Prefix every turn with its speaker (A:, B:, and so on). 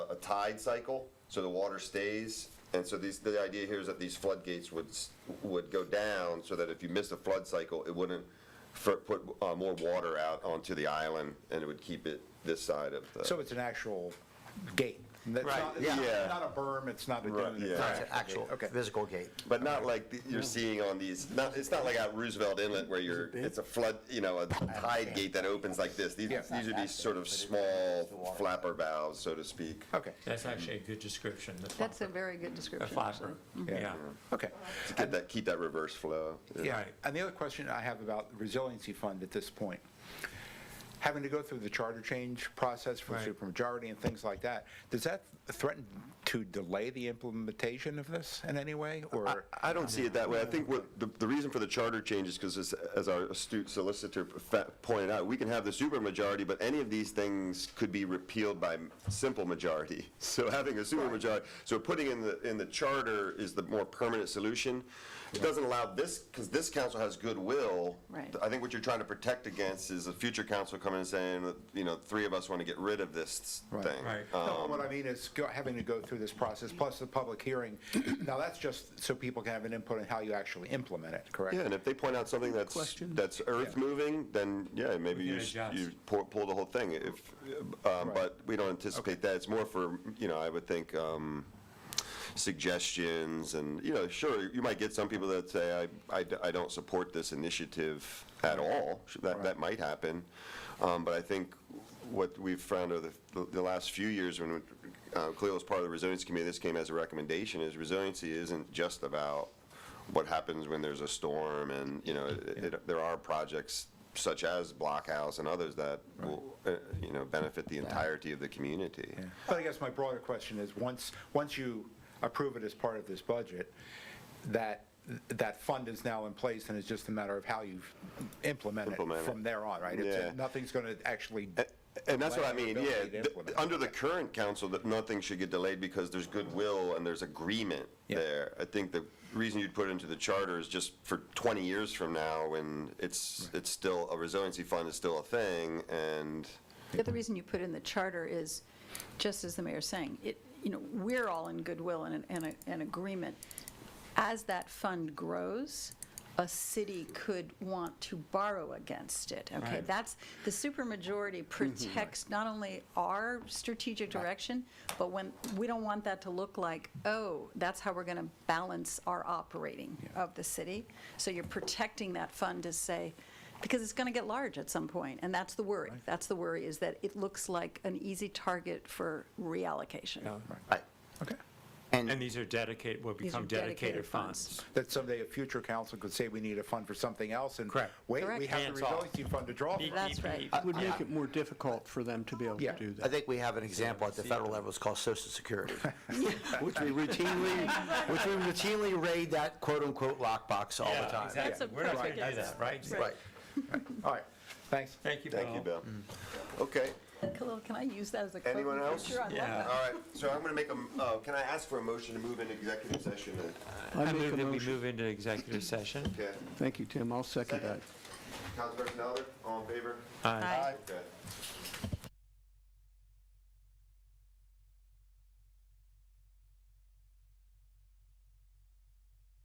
A: tide cycle, so the water stays. And so these, the idea here is that these floodgates would, s- would go down so that if you missed a flood cycle, it wouldn't fur- put uh, more water out onto the island and it would keep it this side of the.
B: So it's an actual gate. That's
C: Right,
B: not- it's not-
A: yeah.
B: Not a berm, it's not a
A: Right,
B: dune.
A: yeah.
B: it's
A: Right,
C: It's an
B: a
C: actual
B: gate. Okay.
C: physical gate.
A: But not like the- you're seeing on these, not, it's not like at Roosevelt Inlet where you're, it's a flood, you know, a tide gate that opens like this. These,
B: Yeah.
A: these would be sort of small flapper valves, so to speak.
B: Okay,
D: That's actually a good description, the
E: That's a
D: flopper.
E: very good
D: A
E: description.
D: flopper, yeah.
B: okay.
A: To get that, keep that reverse flow.
B: Yeah,
D: Right.
B: and the other question I have about the resiliency fund at this point, having to go through the charter change process for
D: Right.
B: supermajority and things like that, does that threaten to delay the implementation of this in any way, or?
A: I I don't see it that way. I think what, the, the reason for the charter change is because as, as our astute solicitor fa- pointed out, we can have the supermajority, but any of these things could be repealed by m- simple majority. So having a supermajority, so putting in the, in the charter is the more permanent solution. It doesn't allow this, because this council has goodwill.
E: Right.
A: I think what you're trying to protect against is a future council coming and saying, that, you know, three of us want to get rid of this
B: Right.
C: Mm-hmm.
A: thing.
D: Right.
B: No,
A: um,
B: What I mean is go- having to go through this process, plus the public hearing. Now, that's just so people can have an input on how you actually implement it, correct?
A: Yeah, and if they point out something that's, that's earth-moving, then, yeah, maybe
D: can
A: you, s-
D: adjust.
A: you pull, pull the whole thing. If, um, but we don't anticipate that. It's more for, you know, I would think, um, suggestions and, you know, sure, you might get some people that say, I, I d- I don't support this initiative at all. That, that might happen. Um, but I think what we've found over the, the last few years when, uh, Cleo was part of the resilience committee, this came as a recommendation, is resiliency isn't just about what happens when there's a storm and, you know, it- it- there are projects such as Blockhouse and others that will, uh, you know, benefit the entirety of the community.
B: Yeah. But I guess my broader question is, once, once you approve it as part of this budget, that, that fund is now in place, and it's just a matter of how you implement
A: Implement
B: it
A: it.
B: from there on, right? It's-
A: Yeah. Eh.
B: Nothing's going to actually,
A: And that's what I
B: Delay
A: mean,
B: the
A: yeah,
B: ability to
A: th-
B: implement.
A: under the current council, that nothing should get delayed because there's goodwill and there's agreement
B: Yeah.
A: there. I think the reason you'd put it into the charter is just for twenty years from now, when it's, it's still, a resiliency fund is still a thing, and,
E: The other reason you put in the charter is, just as the mayor's saying, it, you know, we're all in goodwill and, and a- and agreement. As that fund grows, a city could want to borrow against it, okay?
D: Right. Mm-hmm.
E: That's, the supermajority protects not only our strategic direction, but when, we don't want that to look like, oh, that's how we're going to balance our operating of the city. So you're protecting that fund to say, because it's going to get large at some point, and that's the worry. That's the worry, is that it looks like an easy target for reallocation.
D: Yeah.
C: Right.
B: okay,
D: And these are dedicated, will
E: These are
D: become dedicated
E: dedicated
D: funds.
E: funds.
B: that someday a future council could say, we need a fund for something else, and
D: Correct.
B: wait, we
E: Correct.
B: have the
D: Hands off.
B: resiliency fund to draw from.
E: That's right.
D: Beep, beep,
F: Would make it more difficult for them to be able
B: Yeah.
F: to do
B: I
F: that.
C: I think we have an example at the federal
D: uh,
C: level, it's called social security, which we routinely, which we routinely raid that quote-unquote lockbox all
D: Yeah,
C: the time.
D: exactly.
E: That's a
D: We're not going
E: perfect
D: to do that,
E: example.
D: right?
C: Right.
B: All right, thanks.
D: Thank you,
A: thank you,
D: Bill.
A: Bill. Mm. Okay.
E: Khalil, can I use that as a quote?
A: Anyone
E: in the
A: else?
E: future? I love
D: Yeah.
A: All
E: that.
A: right, so I'm gonna make a, m- uh, can I ask for a motion to move into executive session? uh,
D: I
F: make
D: move
F: a
D: that we
F: motion.
D: move into executive session.
A: Okay,
F: Thank you, Tim. I'll second
A: Second.
F: that.
A: Councilperson Eller, all in favor?
D: Aye.
E: Aye.
A: Okay.